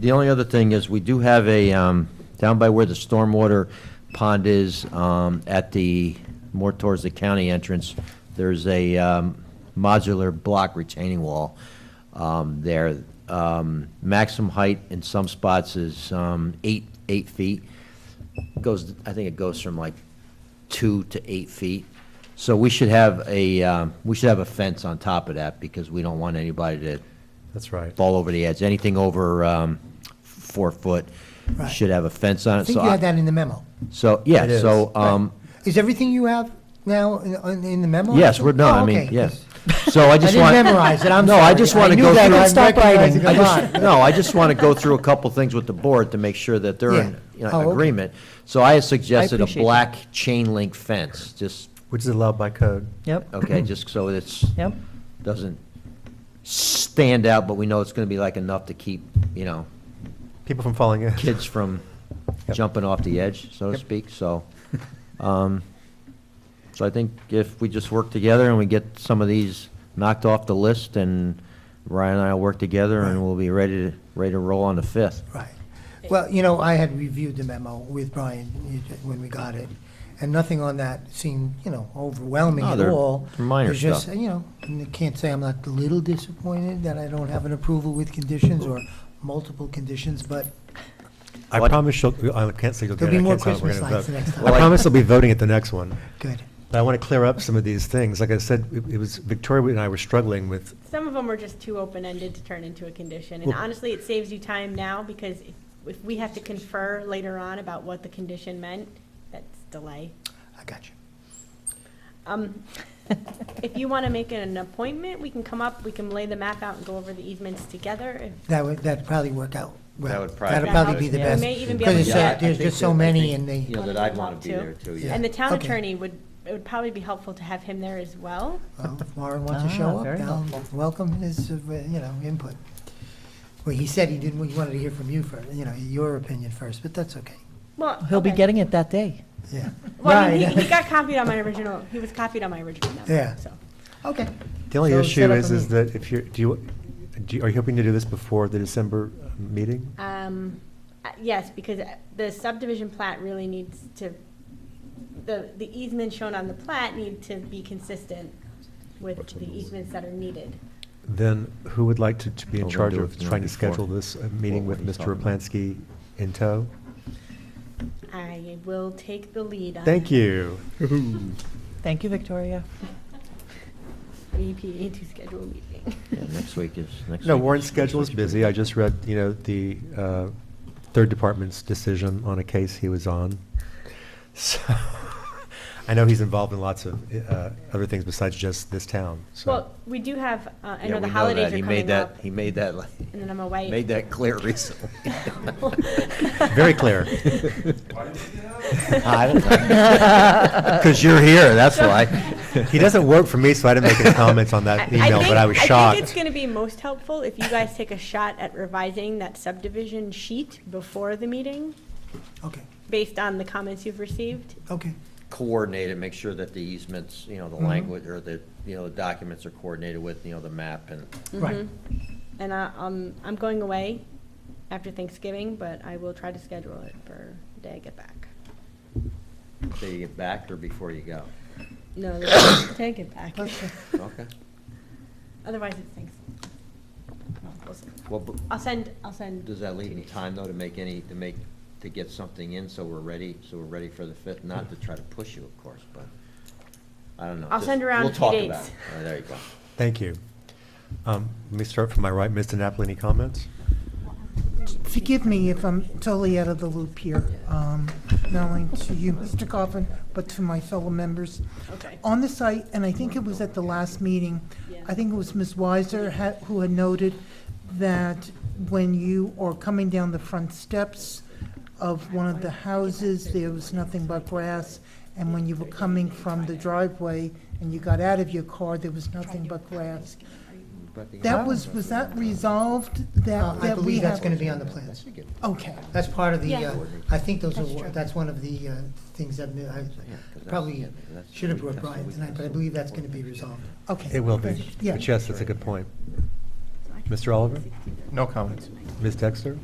The only other thing is, we do have a, um, down by where the stormwater pond is, um, at the, more towards the county entrance, there's a um, modular block retaining wall um, there. Um, Maximum height in some spots is um, eight, eight feet. Goes, I think it goes from like two to eight feet. So we should have a, um, we should have a fence on top of that, because we don't want anybody to That's right. fall over the edge. Anything over um, four foot Right. should have a fence on I it. think So, you had I- that in the memo. so, yeah, It so, um, Is everything you have now in- in in the memo? yes, we're, no, I Oh, mean, okay. yes. So I I just didn't want. memorize it, I'm No, sorry. I just want to knew go that, through. I Stop recognized writing. it. I Come just- on. No, I just want to go through a couple things with the board to make sure that they're in, you Yeah. know, Oh, okay. agreement. So I had suggested a appreciate that. black chain link fence, just, Which is allowed by code. Yep, okay, just so it's, yep. doesn't stand out, but we know it's going to be like enough to keep, you know, People from falling in. kids from Yep. jumping off the edge, so to Yep. speak, so. um, So I think if we just work together and we get some of these knocked off the list, and Ryan and I will work together, and we'll be ready to, ready to roll on the 5th. Right. Well, you know, I had reviewed the memo with Brian you- when we got it, and nothing on that seemed, you know, overwhelming No, at they're all. minor It's just, stuff. You know, and I can't say I'm not a little disappointed that I don't have an approval with conditions or multiple conditions, but I What? promise you'll, I can't say you'll get There'll it. be I more can't tell Christmas if we're gonna lights vote. next time. I promise they'll be voting at the next one. good. But I want to clear up some of these things. Like I said, it it was, Victoria and I were struggling with, Some of them are just too open-ended to turn into a condition, and Well- honestly, it saves you time now, because if- if we have to confer later on about what the condition meant, that's delay. I got you. Um, If you want to make an appointment, we can come up, we can lay the map out and go over the easements together. if- That would, that'd probably work out well. That would probably That'd be probably good. be the We best. may even be Because able it's, to- uh, there's just so many and they, You know, that I'd want to be there too, yeah. And the town Okay. attorney would, it would probably be helpful to have him there as well. well, if Warren wants to show Ah, up, very they'll helpful. welcome his, uh, you know, input. Well, he said he didn't, he wanted to hear from you first, you know, your opinion first, but that's okay, Well, He'll be okay. getting it that day. yeah. Well, I mean, he, he Right. got copied on my original, he was copied on my original memo, Yeah. so. Okay, the only So issue set up is, a is meeting. that if you're, do you, do you- are you hoping to do this before the December uh, meeting? Um, uh, Yes, because uh, the subdivision plat really needs to, the, the easements shown on the plat need to be consistent with the easements that are needed. Then who would like to, to be in Well, then charge do of it trying to before- schedule this uh, meeting what with he's Mr. talking about. Raplansky in tow? I will take the lead on. Thank you. Thank you, Victoria. EPA to schedule a meeting. Yeah, Next week is, next week. No, Warren's is- schedule is busy. I just read, you know, the uh, third department's decision on a case he was on. So, I know he's involved in lots of uh, other things besides just this town, so. Well, we do have, uh, I Yeah, know the we holidays that. He are made coming that- up, He made that, like, and then I'm away. made that clear recently. Very clear. I don't know. Because you're here, that's why. He doesn't work for me, so I didn't make any comments on I- that I email, think- but I was I think it's shocked. going to be most helpful if you guys take a shot at revising that subdivision sheet before the meeting, okay, based on the comments you've received. okay, coordinate it, make sure that the easements, you know, the language, or the, you know, the documents are coordinated with, you know, the map and. right. And I, um, I'm going away after Thanksgiving, but I will try to schedule it for the day I get back. So you get back or before you go? No, the day I get back. Okay. Otherwise, it's Thanks. no, we'll see. Well, but I'll send, I'll send. does that leave any time, though, to make any, to make, to get something in, so we're ready, so we're ready for the fifth? Not to try to push you, of course, but, I don't know. I'll Just- send around a few We'll talk about dates. it. All right, There you go. Thank you. Um, Let me start from my right. Mr. Napoli, any comments? Forgive me if I'm totally out of the loop here, um, not only to you, Mr. Coffin, but to my fellow members. Okay. On the site, and I think it was at the last meeting, I think it was Ms. Weiser ha- who had noted that when you are coming down the front steps of one of the houses, there was nothing but grass, and when you were coming from the driveway and you got out of your car, there was nothing but grass. But the- That was, was that resolved, Uh, that, I that we believe have? that's gonna be on the plans. Okay. That's part of the, Yeah. uh, I think those That's are, true. that's one of the uh, things that I probably should have brought Brian tonight, but I believe that's gonna be resolved. Okay. It will be. Yeah. But yes, that's a good point. Mr. Oliver? No comments. Ms. Dexter?